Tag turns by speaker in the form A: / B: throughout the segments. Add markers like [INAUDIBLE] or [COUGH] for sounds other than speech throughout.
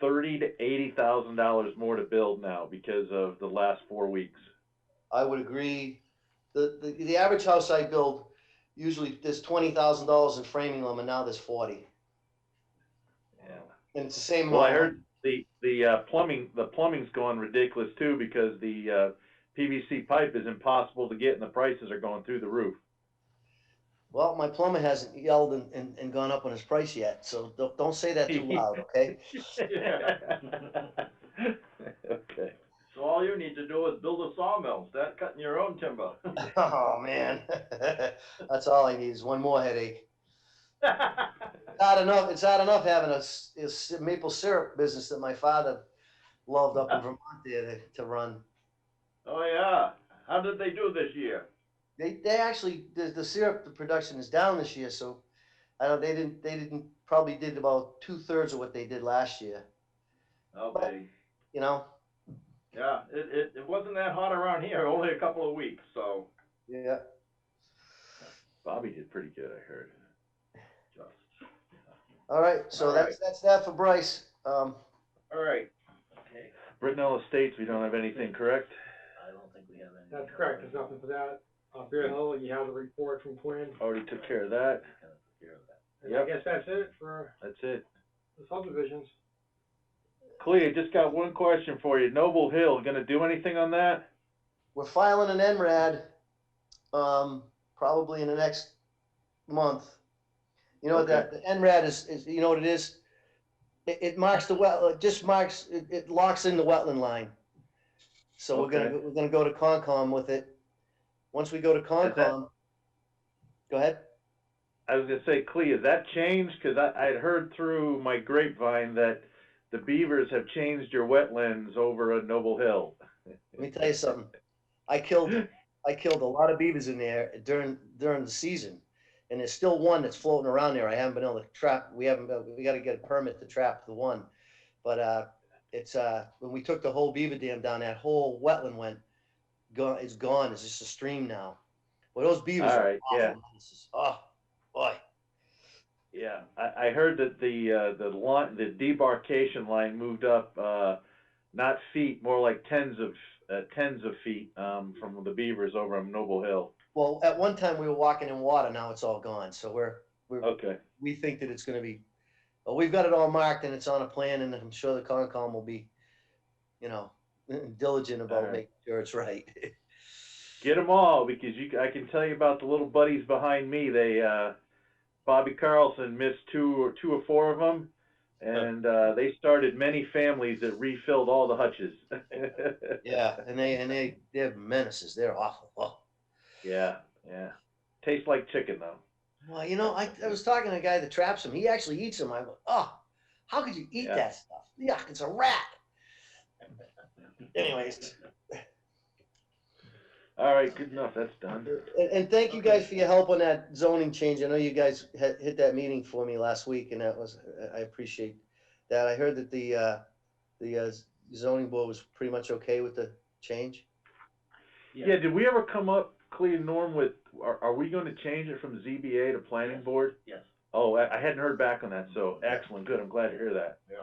A: thirty to eighty thousand dollars more to build now because of the last four weeks.
B: I would agree. The, the, the average house I build, usually there's twenty thousand dollars in framing them and now there's forty.
A: Yeah.
B: And it's the same.
A: Well, I
B: amount.
A: heard the, the uh, plumbing, the plumbing's gone ridiculous too because the, uh, PVC pipe is impossible to get and the prices are going through the roof. [LAUGHS]
B: Well, my plumber hasn't yelled and, and, and gone up on his price yet, so don't, don't say that
A: [LAUGHS]
B: too loud, okay?
A: Okay.
C: So all you need to do is build a sawmill, start cutting your own
A: [LAUGHS]
C: timber.
B: Oh, man. [LAUGHS] That's all I need is one more headache. Not enough, it's not enough having a, s- a s- maple syrup business that my father loved up in Vermont there to- to run.
C: Oh, yeah. How did they do this year?
B: They, they actually, the, the syrup, the production is down this year, so I don't, they didn't, they didn't, probably did about two thirds of what they did last year,
C: Okay,
B: you know?
C: Oh, yeah, it, it, it wasn't that hot around here, only a couple of weeks, so
B: Yeah.
A: Bobby did pretty good, I heard.
C: just,
B: All right, so
C: All
B: that's, that's that for Bryce. Um,
C: all right.
D: Okay,
A: Brittenell Estates, we don't have anything, correct?
D: I don't think we have any.
E: That's correct, there's nothing for that. Uh, Bear Hill, you have a report from Quinn.
A: Already took care of that.
E: And I
A: Yep.
E: guess that's it for
A: That's it.
E: the subdivisions.
A: Clea, just got one question for you. Noble Hill, gonna do anything on that?
B: we're filing an NRAD, um, probably in the next month. You know, that, the NRAD is, is, you know what it is? It, it marks the well, it just marks, it, it locks in the wetland line. So we're gonna, we're gonna go to Concom with it. Once we go to Concom, go ahead.
A: I was gonna say, Clea, has that changed? Cause I, I'd heard through my grapevine that the beavers have changed your wetlands over at Noble Hill.
B: Let me tell you something. I killed, I killed a lot of beavers in there during, during the season. And there's still one that's floating around there. I haven't been able to trap, we haven't, been- we gotta get a permit to trap the one. But, uh, it's, uh, when we took the whole beaver dam down, that whole wetland went, gone, it's gone. It's just a stream now. Well, those beavers
A: All
B: are
A: right, yeah.
B: awful. This is- Oh, boy.
A: Yeah, I, I heard that the, uh, the line, the debarkation line moved up, uh, not feet, more like tens of, uh, tens of feet, um, from the beavers over on Noble Hill.
B: Well, at one time we were walking in water. Now it's all gone. So we're, we're,
A: Okay,
B: we think that it's gonna be, well, we've got it all marked and it's on a plan and I'm sure the Concom will be, you know, [LAUGHS] diligent about
A: Alright.
B: making sure it's right. [LAUGHS]
A: get them all, because you, I can tell you about the little buddies behind me, they, uh, Bobby Carlson missed two or, two or four of them, and, uh, they started many families that refilled all the hutches. [LAUGHS]
B: Yeah, and they, and they, they're menaces. They're awful. Oh.
A: Yeah, yeah, tastes like chicken though.
B: Well, you know, I, I was talking to a guy that traps them. He actually eats them. I go, oh, how could you eat
A: Yeah.
B: that stuff? Yuck, it's a rat. Anyways,
A: All right, good enough, that's done.
B: and, and thank you guys for your help on that zoning change. I know you guys had, hit that meeting for me last week and that was, I- I appreciate that. I heard that the, uh, the uh, zoning board was pretty much okay with the change.
A: Yeah, did we ever come up, Clea and Norm, with, are, are we gonna change it from ZBA to planning
D: Yes.
A: board?
D: Yes,
A: Oh, I, I hadn't heard back on that, so excellent, good, I'm glad to hear that.
C: Yeah.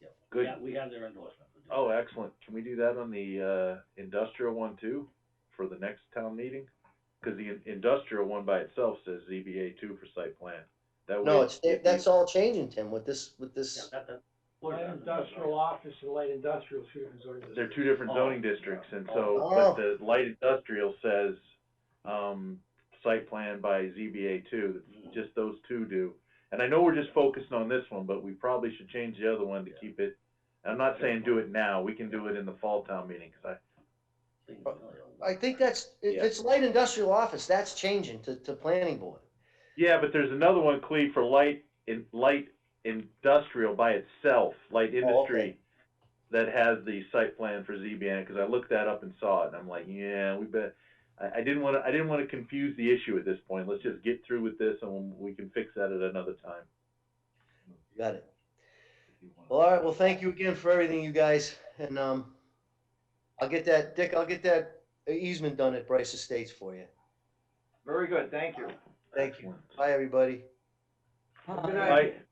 D: yeah. We
A: Good.
D: have- We have their endorsement. for doing
A: Oh,
D: that.
A: excellent, can we do that on the, uh, industrial one too, for the next town meeting? Cause the in- industrial one by itself says ZBA two for site plan. That way
B: No, it's,
A: if
B: that's
A: you-
B: all changing, Tim, with this, with
D: Yeah,
B: this,
D: that, that. we're
E: Light
D: done.
E: industrial office and light industrial students are.
A: They're two different
D: Oh,
A: zoning districts, and so,
B: oh.
A: but the light industrial says, um, site plan by ZBA two,
D: Mm.
A: just those two do. And I know we're just focusing on this one, but we probably should change the other one to keep it, I'm not saying do it now, we can do it in the fall town meeting, cause
D: Thing is really old.
B: I think that's, if
A: Yeah.
B: it's light industrial office, that's changing to, to planning board.
A: I, yeah, but there's another one, Cleve, for light, in, light industrial by itself,
C: Oh,
A: light industry, that has the site plan for ZBN, cause I looked that up and saw it, and I'm like, yeah, we bet, I, I didn't wanna, I didn't wanna confuse the issue at this point, let's just get through with this, and we can fix that at another time.
B: Got it. Well, all right, well, thank you again for everything, you guys, and, um, I'll get that, Dick, I'll get that easement done at Bryce Estates for you.
C: Very good, thank you.
B: Thank you. Bye, everybody.
E: Good
A: Bye.
E: night.